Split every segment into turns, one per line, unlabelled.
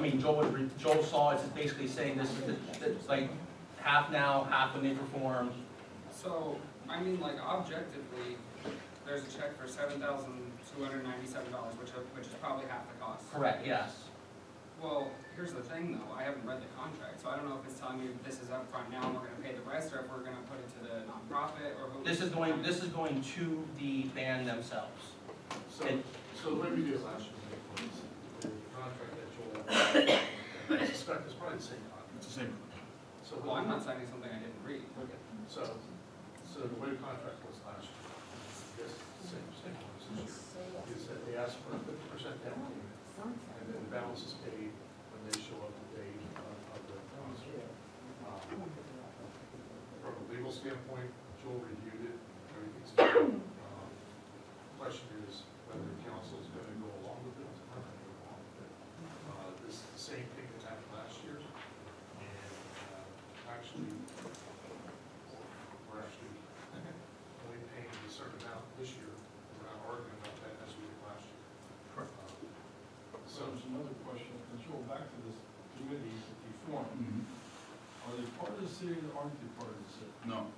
mean, Joe was, re- Joe saw it's basically saying this, this- this, like, half now, half when they perform.
So, I mean, like objectively, there's a check for seven thousand two hundred ninety-seven dollars, which, are- which is probably half the cost.
Correct, yes.
Well, here's the thing though, I haven't read the contract, so I don't know if it's telling me this is upfront now and we're gonna pay the rest, or if we're gonna put it to the nonprofit, or. who-
This is going, this is going to the band themselves.
So,
And-
so what did we do last year? The contract that Joel, I suspect it's probably the same contract.
It's the same.
So,
Well, I'm not signing something I didn't read.
okay, so, so the way the contract was last year, yes, same, same one as this year, is that they ask for a fifty percent down payment, and then the balance is paid when they show up the day of of the concert. Um, From a legal standpoint, Joel reviewed it, everything's good. Um, Question is whether council is gonna go along with it, or not gonna go along with it. Uh, This is the same thing that happened last year, and uh, actually, we're actually only paying a certain amount this year. We're not arguing about that as we did last year. Um,
So
So,
there's another question, let's go back to this committee that you formed. Are they part of the city or aren't they part of the city?
No,
If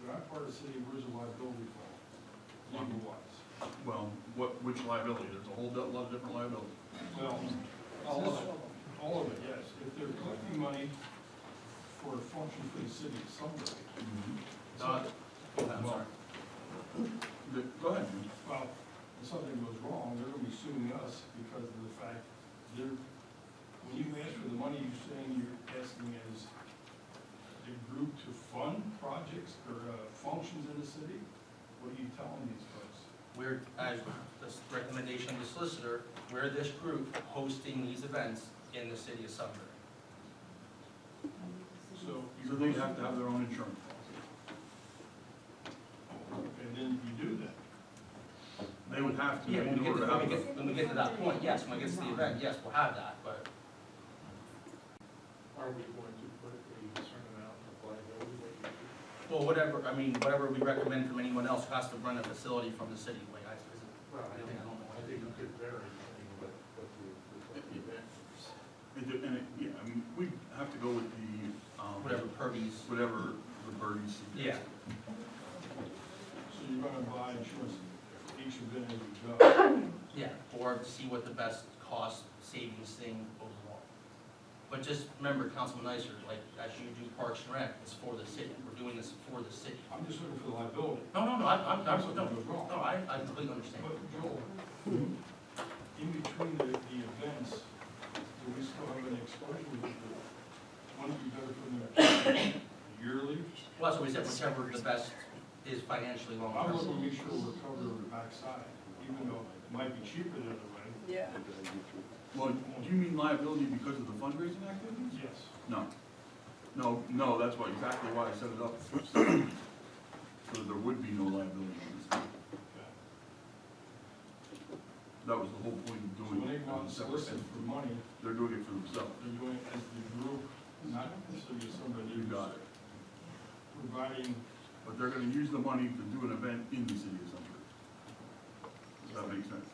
they're not part of the city, where's the liability fall? Legal wise?
well, what, which liability? There's a whole lot of different liabilities.
Well, all of it, all of it, yes. If they're collecting money for a function for the city someday.
Uh, I'm sorry. The- Go ahead.
Well, if something goes wrong, they're gonna be suing us because of the fact they're, when you ask for the money, you're saying you're asking as a group to fund projects or uh, functions in the city? What are you telling these folks?
We're, as the recommendation of the solicitor, we're this group hosting these events in the city of Sunbury.
So.
So they have to have their own insurance policy.
And then you do that.
They would have to
Yeah, when
in
we get
order
to,
to
when
have
we
it.
get, when we get to that point, yes, when it gets to the event, yes, we'll have that, but
are we going to put a certain amount of liability? that you-
Well, whatever, I mean, whatever we recommend from anyone else who has to run a facility from the city, like, I, is it-
Well, I
I
think,
think- I don't know.
I think it could vary, I mean, what, what the, what the event is.
It de- And, it- yeah, I mean, we have to go with the, um,
whatever Purdy's,
whatever the birdies.
yeah,
So you're gonna buy insurance each event as you go.
yeah, or see what the best cost savings thing overall. But just remember, Councilman Nicer, like, as you do Parks and Rec, it's for the city, we're doing this for the city.
I'm just looking for the liability.
No, no, no, I, I'm,
If
I'm,
something
no,
goes wrong.
no, I, I completely understand.
But Joel, in between the, the events, do we still have an exposure with the, wouldn't it be better for them to yearly?
Well, that's what we said, whichever the best is financially long
I want
term.
to make sure we're covered on the backside, even though it might be cheaper the other way.
Yeah.
Well, do you mean liability because of the fundraising activities?
Yes.
No. No, no, that's why, exactly why I set it up. So there would be no liability on this.
Okay.
That was the whole point of
So
doing
when they
it.
go out and
as a separate
solicit
entity.
for money,
They're doing it for themselves.
they're doing it as the group, not necessarily somebody.
You got it.
Providing,
But they're gonna use the money to do an event in the city of Sunbury. Does that make sense?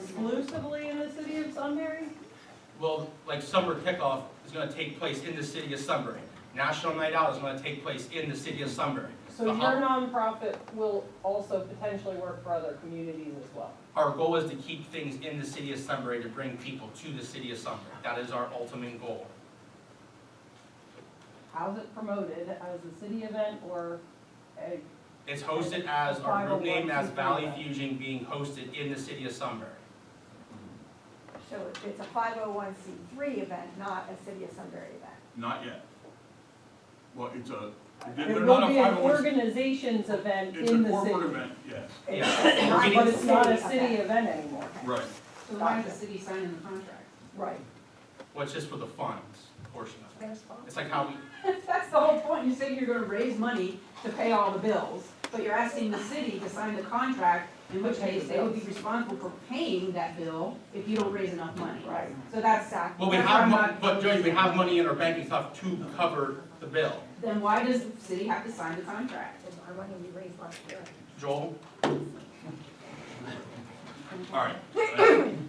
Exclusively in the city of Sunbury?
Well, like summer kickoff is gonna take place in the city of Sunbury. National Night Out is gonna take place in the city of Sunbury.
So your
Uh-huh.
nonprofit will also potentially work for other communities as well?
Our goal is to keep things in the city of Sunbury, to bring people to the city of Sunbury. That is our ultimate goal.
How's it promoted, as a city event or a,
It's hosted as, our group name as Valley Fusion being hosted in the city of Sunbury.
So it's a five oh one C three event, not a City of Sunbury event.
Not yet. Well, it's a,
it
they're
will
not a
be an
501c.
organization's event
It's a
in the
corporate
city?
event, yes,
Yeah.
not
But
a
it's not a
city
city
event.
event anymore?
right.
So why is the city signing the contract?
Right.
Well, it's just for the funds portion of it. It's like how we,
That's the whole point, you say you're gonna raise money to pay all the bills, but you're asking the city to sign the contract, in which case they would be responsible for paying that bill if you don't raise enough money.
Right.
So that's, that's
well,
why
we have,
I'm
mon-
not.
but Jody, we have money in our banking stuff to cover the bill.
Then why does the city have to sign the contract?
I want to be raised last year.
Joel?
All right.